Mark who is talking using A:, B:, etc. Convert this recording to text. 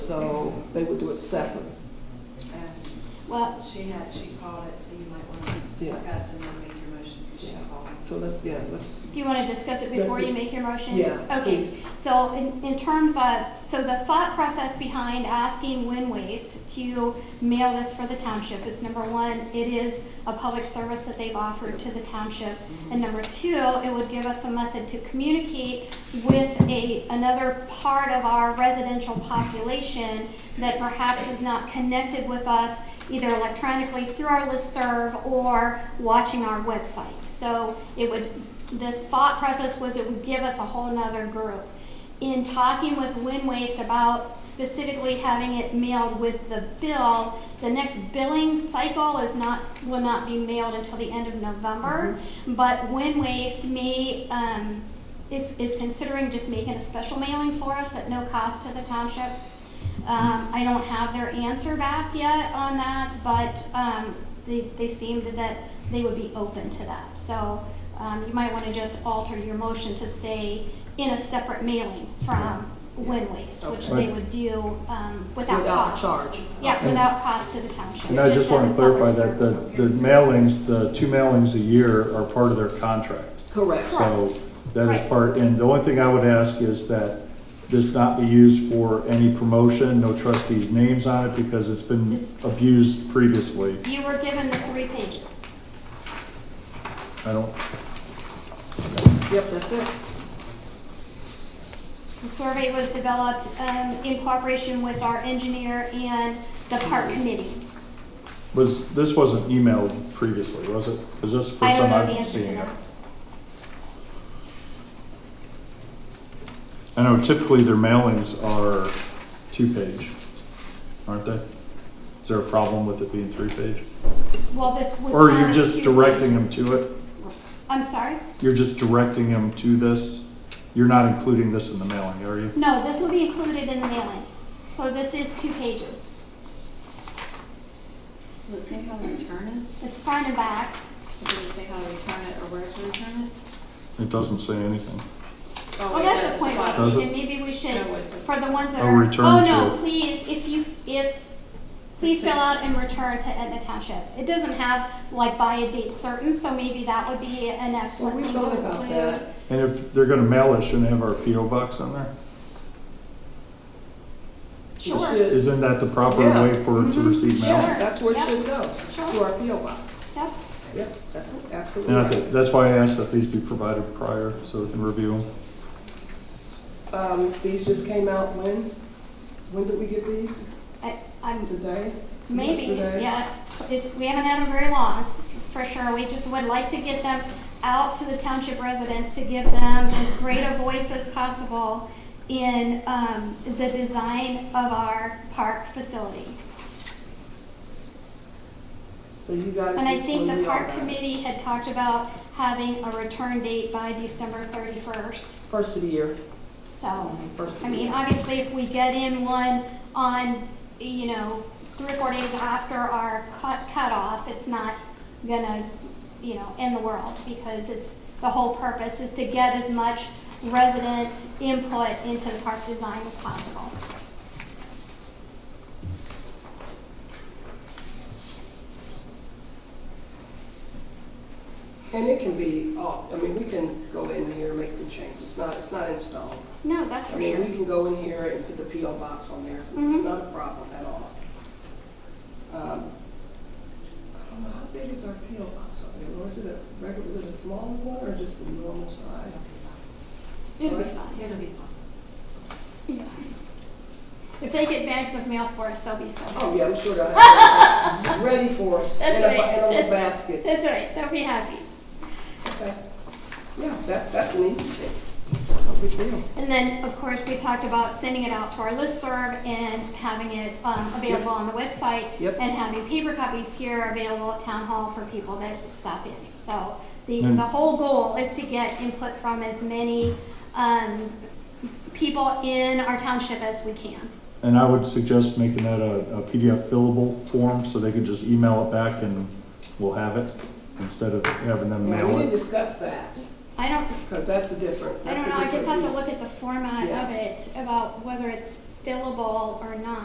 A: so they would do it separate.
B: Well, she had, she called it, so you might want to
A: Yeah.
B: discuss and then make your motion, because she
A: Yeah.
B: called.
A: So let's, yeah, let's,
C: Do you want to discuss it before you
A: Just-
C: make your motion?
A: yeah,
C: Okay,
A: please.
C: so in, in terms of, so the thought process behind asking Win Waste to mail this for the township is number one, it is a public service that they've offered to the township. And number two, it would give us a method to communicate with a, another part of our residential population that perhaps is not connected with us either electronically through our listserv or watching our website. So it would, the thought process was it would give us a whole nother group. In talking with Win Waste about specifically having it mailed with the bill, the next billing cycle is not, will not be mailed until the end of November. But Win Waste may, um, is, is considering just making a special mailing for us at no cost to the township. Um, I don't have their answer back yet on that, but, um, they, they seemed that they would be open to that. So, um, you might wanna just alter your motion to say in a separate mailing from Win Waste, which
A: Okay.
C: they would do, um, without
A: without
C: cost.
A: charge.
C: Yeah, without cost to the township.
D: And I just
C: as
D: want to
C: a public
D: clarify that the,
C: service.
D: the mailings, the two mailings a year are part of their contract.
A: Correct.
D: So that
C: Right.
D: is part, and the only thing I would ask is that this not be used for any promotion, no trustees' names on it, because it's been
C: This-
D: abused previously.
C: You were given the three pages.
D: I don't,
A: Yep, that's it.
C: The survey was developed um, in cooperation with our engineer and the
D: Hmm.
C: park committee.
D: was, this wasn't emailed previously, was it? Is this the
C: I
D: first
C: don't
D: time
C: know the
D: I'm
C: answer to
D: seeing it?
C: that.
D: I know typically their mailings are two-page, aren't they? Is there a problem with it being three-page?
C: Well, this would.
D: Or you're
C: promise
D: just
C: to-
D: directing them to it?
C: I'm sorry?
D: You're just directing them to this? You're not including this in the mailing, are you?
C: No, this will be included in the mailing. So this is two pages.
E: Will it say how to return it?
C: It's front and back.
E: Does it say how to return it or where to return it?
D: It doesn't say anything.
C: Well,
E: Oh, wait,
C: that's
E: no,
C: a point,
E: the
C: well
E: bottom.
D: Oh, Does it?
C: taken. maybe we should,
E: No, it says-
C: for the ones that
D: I'll
C: are.
D: return
C: Oh,
D: to-
C: no, please, if you, if, please
E: Says
C: fill
E: pay.
C: out and return to Etna Township. It doesn't have like by a date certain, so maybe that would be an
A: Well,
C: excellent
A: we
C: thing to
A: thought
C: include.
A: about that.
D: And if they're gonna mail it, shouldn't they have our PO box on there?
A: It
C: Sure.
A: should-
D: Isn't that the proper
A: Yeah. Mm-hmm.
D: way for it to
C: Mhm.
D: receive mail?
C: Sure.
A: Yeah, that's where it should go,
C: Sure.
A: to our PO box.
C: Yep.
A: Yep, that's absolutely
D: And I
A: right.
D: think, that's why I asked that these be provided prior, so we can review them.
A: Um, these just came out when? When did we get these?
C: I, I'm
A: Today?
C: Maybe,
A: Yesterday?
C: yeah. It's, we haven't had them very long, for sure. We just would like to get them out to the township residents to give them as great a voice as possible in um, the design of our park facility.
A: So you got it.
C: And I
A: just
C: think
A: when
C: the
A: we all
C: park
A: got it.
C: committee had talked about having a return date by December 31st.
A: First of the year.
C: So,
A: First of
C: Oh, I
A: the
C: mean,
A: year.
C: obviously, if we get in one on, you know, three or four days after our cut, cutoff, it's not gonna, you know, end the world, because it's, the whole purpose is to get as much resident input into the park design as possible.
A: And it can be, all I mean, we can go in here, and make some changes, it's not, it's not installed.
C: No, that's
A: I
C: for
A: mean,
C: sure.
A: we can go in here and put the PO box on there, so
C: Mhm.
A: it's not a problem at all. Um, I don't know, how big is our PO box on there, or is it a regular, is it a smaller one, or just the normal size?
C: It'll be fine.
E: It'll be fine.
C: Yeah. If they get bags of mail for us, they'll be so
A: Oh,
C: happy.
A: yeah, I'm sure they'll have it ready for us, in a,
C: That's right,
A: in a little
C: that's right.
A: basket.
C: That's all right, they'll be happy.
A: Okay. Yeah, that's, that's an easy fix, no big deal.
C: And then, of course, we talked about sending it out to our listserv and having it um, available on the website.
A: Yep.
C: And having paper copies here available at town hall for people that stop in. So the,
D: And-
C: the whole goal is to get input from as many um, people in our township as we can.
D: And I would suggest making that a a PDF fillable form, so they can just email it back and we'll have it, instead of having them
A: Now,
D: mail
A: we didn't
D: it.
A: discuss that,
C: I don't,
A: because that's a different,
C: I
A: that's
C: don't
A: a
C: know, I
A: different
C: just have to
A: piece.
C: look at the format
A: Yeah.
C: of it, about whether it's fillable or not.